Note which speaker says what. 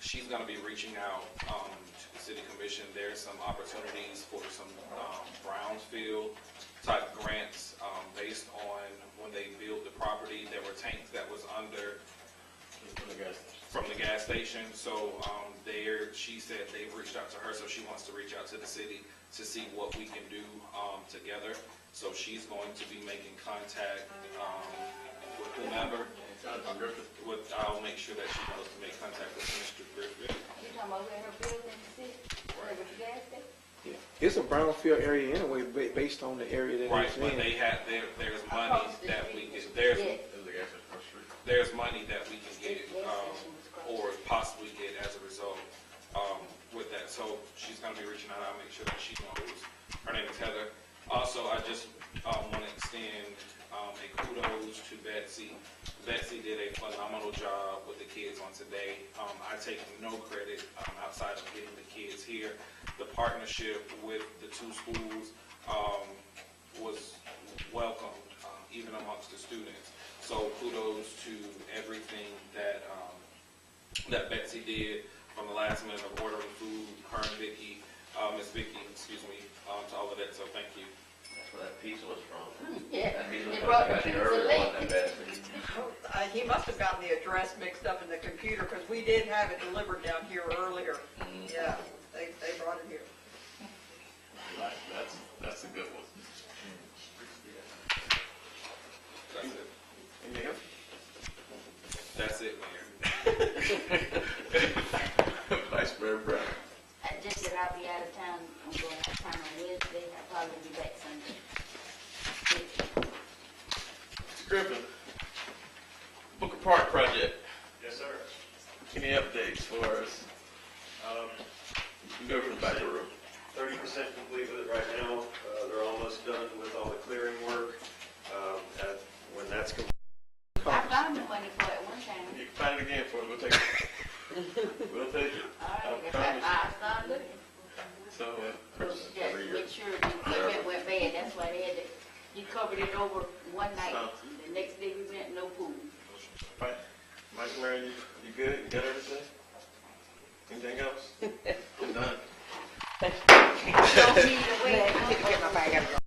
Speaker 1: She's gonna be reaching out, um, to the city commission. There's some opportunities for some, um, brownfield type grants, um, based on when they built the property, there were tanks that was under from the gas station. So um, there, she said they've reached out to her, so she wants to reach out to the city to see what we can do um, together. So she's going to be making contact um, with whomever. With, I'll make sure that she knows to make contact with Mr. Griffin.
Speaker 2: You talking about where her building sit, where the gas station?
Speaker 3: Yeah. It's a brownfield area anyway, ba- based on the area that
Speaker 1: Right,
Speaker 3: it's
Speaker 1: but
Speaker 3: in.
Speaker 1: they had, there, there's money that we can, there's,
Speaker 2: Yes.
Speaker 1: there's money that we can get, um, or possibly get as a result, um, with that. So she's gonna be reaching out, I'll make sure that she knows. Her name is Heather. Also, I just, um, wanna extend, um, a kudos to Betsy. Betsy did a phenomenal job with the kids on today. Um, I take no credit, um, outside of getting the kids here. The partnership with the two schools, um, was welcomed, um, even amongst the students. So kudos to everything that, um, that Betsy did from the last minute of ordering food, her and Vicky, uh, Miss Vicky, excuse me, um, to all of that, so thank you.
Speaker 4: That's where that pizza was from.
Speaker 2: Yeah,
Speaker 4: That pizza was
Speaker 2: it
Speaker 4: from
Speaker 2: brought
Speaker 4: the
Speaker 2: the
Speaker 4: country
Speaker 2: pizza
Speaker 4: earlier, wasn't it,
Speaker 2: late.
Speaker 4: Betsy?
Speaker 5: Uh, He must have gotten the address mixed up in the computer, because we did have it delivered down here earlier. Yeah, they, they brought it here.
Speaker 6: That's, that's a good one.
Speaker 1: That's it.
Speaker 3: Anything else?
Speaker 1: That's it, Mayor.
Speaker 6: Vice Mayor Brown.
Speaker 2: I just said I'll be out of town, I'm going out of town on Wednesday, I'll probably be back Sunday.
Speaker 6: Mr. Griffin, Booker Park project,
Speaker 7: Yes, sir.
Speaker 6: any updates for us? Um, You go from the back of the room.
Speaker 7: Thirty percent complete with it right now. Uh, They're almost done with all the clearing work. Um, that- When that's complete,
Speaker 2: I found the money for it one time,
Speaker 6: You can find it again for us, we'll take it. We'll take it.
Speaker 2: all
Speaker 6: I
Speaker 2: right,
Speaker 6: promise.
Speaker 2: I, I started looking.
Speaker 6: So, uh,
Speaker 2: Well,
Speaker 6: purchase
Speaker 2: Just
Speaker 6: every year.
Speaker 2: make sure the equipment went bad, that's why they had to, you covered it over one night, the next day we went, no pool.
Speaker 6: Right. Vice Mayor, you, you good? You got everything? Anything else? None.
Speaker 2: Don't need to wait.